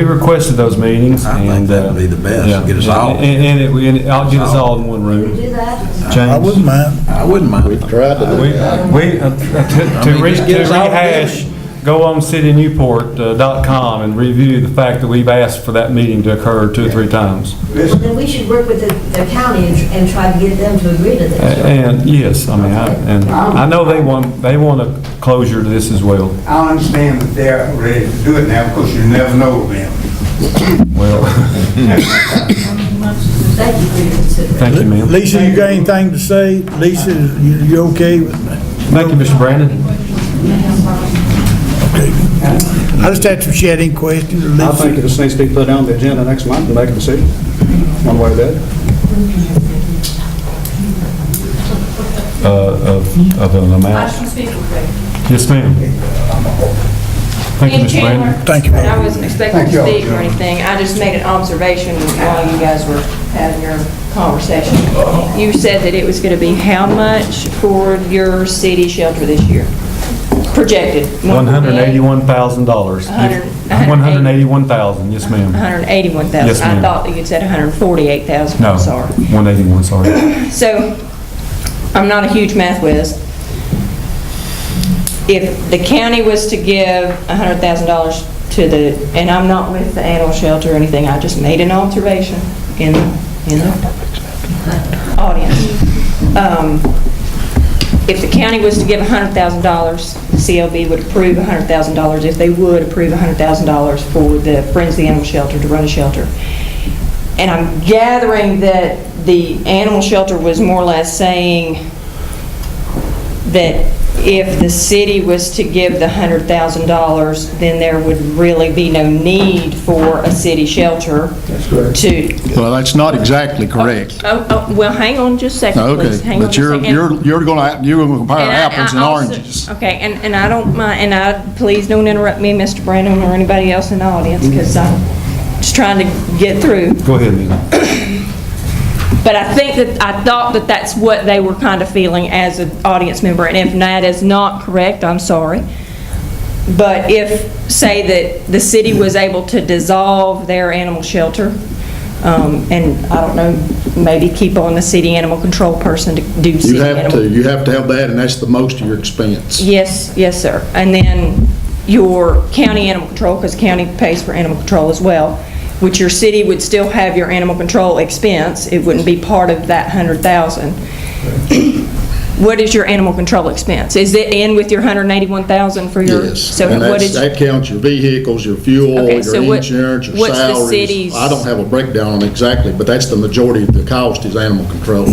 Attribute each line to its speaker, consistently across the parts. Speaker 1: We requested those meetings
Speaker 2: I
Speaker 1: and.
Speaker 2: think that would be the best,
Speaker 1: uh, yeah.
Speaker 2: get us all.
Speaker 1: And, and it, and it'll get us all in one room.
Speaker 3: Do that?
Speaker 2: I
Speaker 4: James,
Speaker 2: wouldn't mind. I wouldn't mind.
Speaker 5: We've tried to do
Speaker 1: We,
Speaker 5: that.
Speaker 1: we, uh, to to
Speaker 2: mean,
Speaker 1: re-
Speaker 2: just get
Speaker 1: to
Speaker 2: us all
Speaker 1: rehash, go on citynewport.com and review the fact that we've asked for that meeting to occur two or three times.
Speaker 3: Well, then we should work with the, the county and, and try to get them to agree to
Speaker 1: A-
Speaker 3: this.
Speaker 1: And, yes, I mean, I- and I know they want, they want a closure to this as well.
Speaker 6: I understand that they're ready to do it now because you never know them.
Speaker 1: Well,
Speaker 3: Thank you for your consideration.
Speaker 1: thank you, ma'am.
Speaker 2: Lisa, you got anything to say? Lisa, you, you okay with
Speaker 1: Thank you, Mr. Brandon.
Speaker 2: I just asked if she had any questions.
Speaker 7: I
Speaker 2: Lisa,
Speaker 7: think it just needs to be put on the agenda next month and make a decision, one way or the other.
Speaker 1: Uh, of, of an
Speaker 8: I
Speaker 1: amount.
Speaker 8: can speak real quick.
Speaker 1: Yes, ma'am. Thank you,
Speaker 8: In
Speaker 1: Mr.
Speaker 8: Chandler,
Speaker 1: Brandon.
Speaker 2: Thank you.
Speaker 8: I wasn't expecting to speak or anything, I just made an observation while you guys were having your conversation. You said that it was going to be how much for your city shelter this year? Projected?
Speaker 1: One hundred eighty-one thousand dollars.
Speaker 8: hundred-
Speaker 1: One hundred eighty-one thousand, yes, ma'am.
Speaker 8: 181,000.
Speaker 1: Yes, ma'am.
Speaker 8: I thought that you said 148,000,
Speaker 1: No,
Speaker 8: I'm sorry.
Speaker 1: one eighty-one, sorry.
Speaker 8: So, I'm not a huge math whiz. If the county was to give $100,000 to the, and I'm not with the animal shelter or anything, I just made an observation in, in the audience. Um, If the county was to give $100,000, the CLB would approve $100,000, if they would approve $100,000 for the Friends of the Animal Shelter to run a shelter. And I'm gathering that the animal shelter was more or less saying that if the city was to give the $100,000, then there would really be no need for a city shelter to...
Speaker 4: well, that's not exactly correct.
Speaker 8: Oh, oh, well, hang on just a second,
Speaker 4: Okay,
Speaker 8: please. Oh. Hang on
Speaker 4: but
Speaker 8: just a
Speaker 4: you're,
Speaker 8: second.
Speaker 4: you're, you're gonna, you're gonna compare
Speaker 8: And I-
Speaker 4: apples and
Speaker 8: I also- Oh,
Speaker 4: oranges.
Speaker 8: Okay, and, and I don't mind, and I, please don't interrupt me, Mr. Brandon, or anybody else in the audience,
Speaker 4: Mm-hmm.
Speaker 8: because I'm just trying to get through.
Speaker 1: Go ahead, Lena.
Speaker 8: But I think that, I thought that that's what they were kind of feeling as an audience member, and if that is not correct, I'm sorry. But if, say that the city was able to dissolve their animal shelter, um, and I don't know, maybe keep on the city animal control person to do city
Speaker 4: You
Speaker 8: animal.
Speaker 4: have to, you have to have that, and that's the most of your expense.
Speaker 8: Yes, yes, sir. And then your county animal control, because county pays for animal control as well, which your city would still have your animal control expense. It wouldn't be part of that 100,000. What is your animal control expense? Is it in with your 181,000 for your?
Speaker 4: Yes,
Speaker 8: So
Speaker 4: and
Speaker 8: what
Speaker 4: that's,
Speaker 8: is? uh,
Speaker 4: that counts your vehicles, your fuel,
Speaker 8: Okay,
Speaker 4: your
Speaker 8: so what-
Speaker 4: insurance, your
Speaker 8: what's the
Speaker 4: salaries.
Speaker 8: city's-
Speaker 4: I don't have a breakdown on exactly, but that's the majority of the cost is animal control.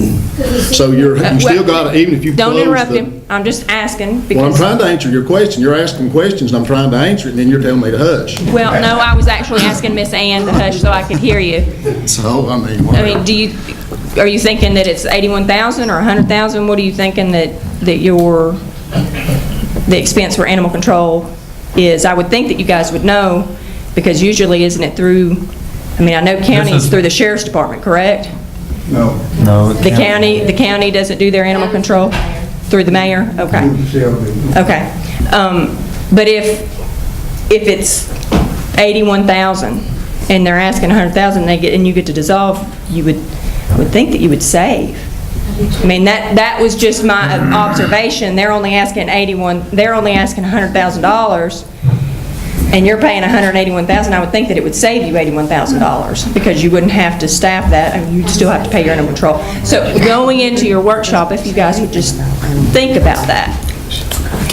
Speaker 4: So you're,
Speaker 8: Uh,
Speaker 4: you still
Speaker 8: well,
Speaker 4: got, even if you close
Speaker 8: Don't
Speaker 4: the.
Speaker 8: interrupt him. I'm just asking
Speaker 4: Well, I'm
Speaker 8: because,
Speaker 4: trying to answer your question. You're asking questions, and I'm trying to answer it, and then you're telling me to hush.
Speaker 8: well, no, I was actually asking Miss Ann to hush so I could hear you.
Speaker 4: So, I mean.
Speaker 8: I mean, do you, are you thinking that it's 81,000 or 100,000? What are you thinking that, that your, the expense for animal control is? I would think that you guys would know, because usually, isn't it through, I mean, I know counties
Speaker 1: is-
Speaker 8: through the sheriff's department, correct?
Speaker 6: No.
Speaker 1: No.
Speaker 8: Oh, The county, the county doesn't do their animal control? Through the mayor? Okay. Okay. Um, But if, if it's 81,000 and they're asking 100,000, they get, and you get to dissolve, you would, would think that you would save. I mean, that, that was just my observation. They're only asking 81, they're only asking $100,000 and you're paying 181,000, I would think that it would save you $81,000 because you wouldn't have to staff that and you'd still have to pay your animal control. So going into your workshop, if you guys would just think about that.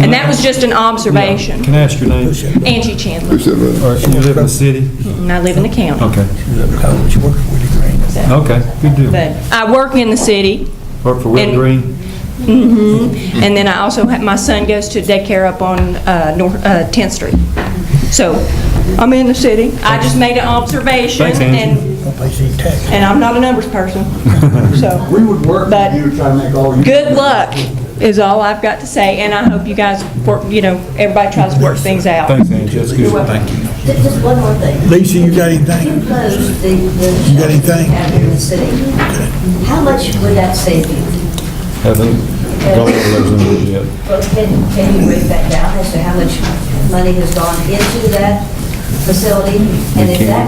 Speaker 8: And that was just an observation.
Speaker 1: Can I ask your name?
Speaker 8: Angie Chandler,
Speaker 1: Or you live in the city?
Speaker 8: and I live in the county.
Speaker 1: Okay. Okay, good deal.
Speaker 8: But I work in the city,
Speaker 1: Work for Will
Speaker 8: And-
Speaker 1: Green?
Speaker 8: and then I also, have my son goes to daycare up on uh, North, uh, 10th Street. So I'm in the city. I just made an observation,
Speaker 1: Thanks, Angie.
Speaker 8: and, and I'm not a numbers person, so.
Speaker 6: We would work
Speaker 8: But-
Speaker 6: with you to try to make all you...
Speaker 8: Good luck is all I've got to say, and I hope you guys work, you know, everybody tries to work things out.
Speaker 1: Thanks, Angie, that's good. Thank you.
Speaker 3: Just just one more thing.
Speaker 2: Lisa, you got anything?
Speaker 3: You closed the, the.
Speaker 2: got anything?
Speaker 3: In the city. How much would that save you?
Speaker 1: Haven't gone over those numbers yet.
Speaker 3: Well, Can, can you break that down as to how much money has gone into that facility, and if that